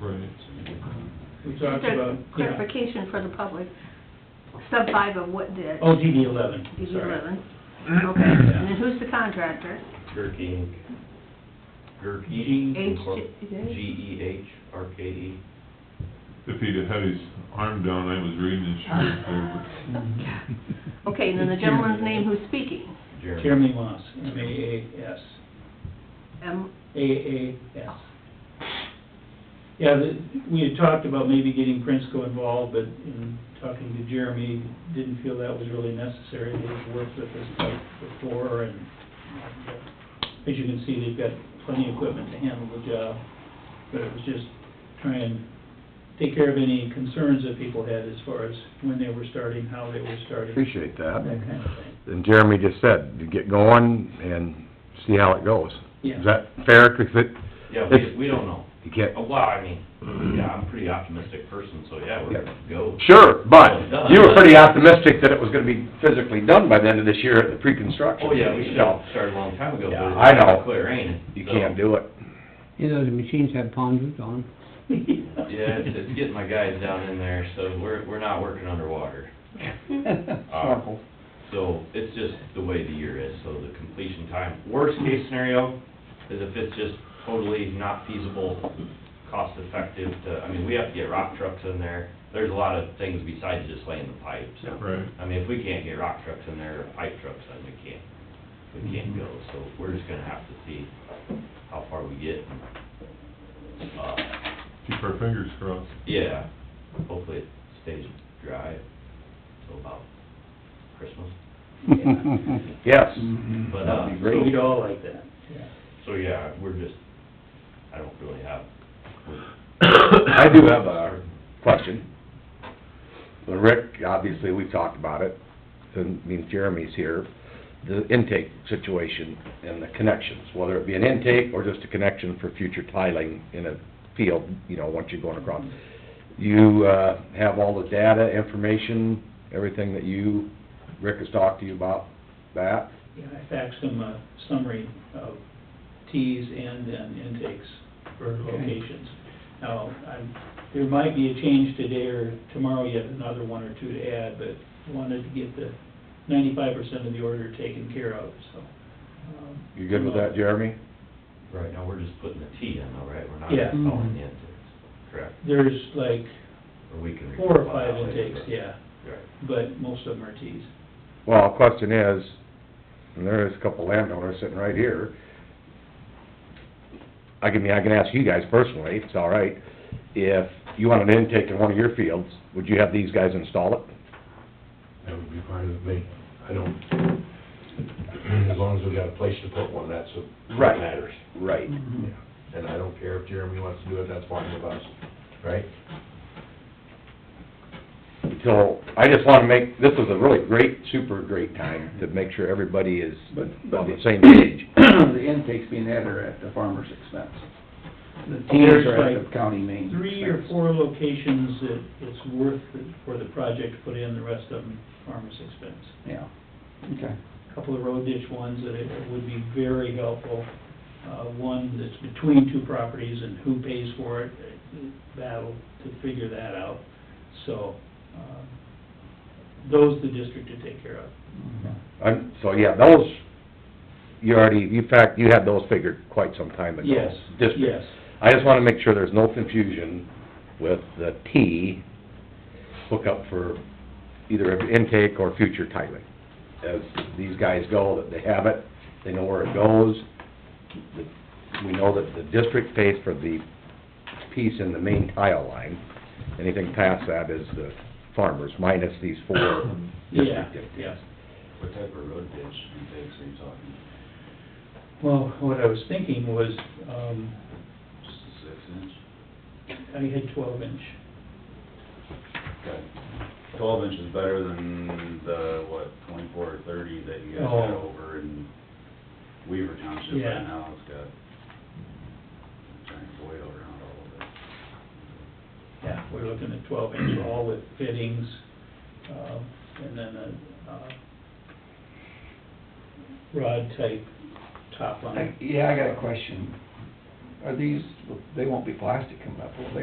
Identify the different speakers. Speaker 1: Right.
Speaker 2: We
Speaker 3: Just
Speaker 2: talked
Speaker 3: a
Speaker 2: about,
Speaker 3: clarification for the public. Sub five of what did?
Speaker 4: Oh, DD eleven,
Speaker 3: DD
Speaker 4: sorry.
Speaker 3: eleven. Okay, and then who's the contractor?
Speaker 5: Gerke Inc. Gerke.
Speaker 6: E
Speaker 3: H-
Speaker 5: G E H R K E.
Speaker 1: If he'd have had his arm down, I was reading his shirt there,
Speaker 3: Okay, and then the gentleman's name who's speaking,
Speaker 5: Jeremy.
Speaker 4: Jeremy Moss, M A A S,
Speaker 3: M,
Speaker 4: A A S. Yeah, the, we had talked about maybe getting Prinsco involved, but in talking to Jeremy, didn't feel that was really necessary. They've worked with this type before and, uh, as you can see, they've got plenty of equipment to handle the job. But it was just try and take care of any concerns that people had as far as when they were starting, how they were starting, that
Speaker 6: Appreciate that.
Speaker 4: kind of thing.
Speaker 6: And Jeremy just said, to get going and see how it goes.
Speaker 4: Yeah.
Speaker 6: Is that fair? 'Cause it,
Speaker 5: Yeah, we, we don't know.
Speaker 6: you can't,
Speaker 5: Uh, Well, I mean, yeah, I'm a pretty optimistic person, so yeah, we're gonna go.
Speaker 6: sure, but you were pretty optimistic that it was gonna be physically done by the end of this year at the pre-construction.
Speaker 5: Oh, yeah, we should
Speaker 6: So,
Speaker 5: have started a long time ago,
Speaker 6: Yeah,
Speaker 5: but
Speaker 6: I
Speaker 5: it's
Speaker 6: know.
Speaker 5: not clear, ain't it?
Speaker 6: You
Speaker 5: So,
Speaker 6: can't do it.
Speaker 7: You know, the machines have palm roots on them.
Speaker 5: Yeah, it's, it's getting my guys down in there, so we're, we're not working underwater. Awful. So it's just the way the year is, so the completion time, worst case scenario is if it's just totally not feasible, cost effective to, I mean, we have to get rock trucks in there. There's a lot of things besides just laying the pipe, so.
Speaker 1: but, right.
Speaker 5: I mean, if we can't get rock trucks in there, or pipe trucks, then we can't, we can't go, so we're just gonna have to see how far we get. Uh,
Speaker 1: Keep our fingers crossed.
Speaker 5: yeah, hopefully it stays dry till about Christmas,
Speaker 6: Yes.
Speaker 4: Mm,
Speaker 5: but, uh,
Speaker 6: That'd be
Speaker 5: so-
Speaker 4: We'd all like that.
Speaker 5: So, yeah, we're just, I don't really have,
Speaker 6: I do have a question. Well, Rick, obviously, we've talked about it, and, I mean, Jeremy's here, the intake situation and the connections, whether it be an intake or just a connection for future tiling in a field, you know, once you're going across. You, uh, have all the data, information, everything that you, Rick has talked to you about that?
Speaker 4: Yeah, I faxed them a summary of tees and then intakes for locations. Now, I'm, there might be a change today or tomorrow yet, another one or two to add, but wanted to get the ninety-five percent of the order taken care of, so. um,
Speaker 6: You good with that, Jeremy?
Speaker 5: right now, we're just putting the T in, all right? We're not
Speaker 4: Yeah.
Speaker 5: installing the intakes, correct?
Speaker 4: There's like
Speaker 5: Or we can.
Speaker 4: four or
Speaker 5: report
Speaker 4: five
Speaker 5: that later,
Speaker 4: intakes,
Speaker 5: but-
Speaker 4: yeah,
Speaker 5: Right.
Speaker 4: but most of them are tees.
Speaker 6: Well, question is, and there is a couple landowners sitting right here, I can, I can ask you guys personally, if it's all right, if you want an intake in one of your fields, would you have these guys install it?
Speaker 8: That would be fine with me. I don't, as long as we got a place to put one, that's what
Speaker 6: Right.
Speaker 8: what matters.
Speaker 6: Right.
Speaker 4: Mm-hmm.
Speaker 8: And I don't care if Jeremy wants to do it, that's fine with us, right?
Speaker 6: So, I just wanna make, this is a really great, super great time to make sure everybody is
Speaker 9: But, but
Speaker 6: on the
Speaker 9: the
Speaker 6: same page.
Speaker 9: the intakes being added are at the farmer's expense. The teams are at the county main
Speaker 4: Three or
Speaker 9: expense.
Speaker 4: four locations that it's worth it for the project to put in, the rest of them farmer's expense.
Speaker 9: Yeah, okay.
Speaker 4: couple of road ditch ones that it would be very helpful. Uh, one that's between two properties and who pays for it, uh, battle to figure that out. So, um, those the district to take care of.
Speaker 6: I'm, so, yeah, those, you already, in fact, you had those figured quite some time ago.
Speaker 4: Yes,
Speaker 6: District.
Speaker 4: yes.
Speaker 6: I just wanna make sure there's no confusion with the T hookup for either intake or future tiling. As these guys go, that they have it, they know where it goes. The- We know that the district pays for the piece in the main tile line. Anything past that is the farmers, minus these four
Speaker 4: Yeah,
Speaker 6: district intakes.
Speaker 4: yes.
Speaker 8: What type of road ditch intakes are you talking?
Speaker 4: Well, what I was thinking was, um,
Speaker 8: Just a six inch?
Speaker 4: I had twelve inch.
Speaker 8: Okay. Twelve inch is better than the, what, twenty-four or thirty that you
Speaker 4: guys got Oh.
Speaker 8: over in Weaver Township
Speaker 4: right Yeah.
Speaker 8: now. It's got giant void around all of it.
Speaker 4: Yeah, we're looking at twelve inch all with fittings, uh, and then a, uh, rod type top on it.
Speaker 9: I- Yeah, I got a question. Are these, they won't be plastic coming up, will they?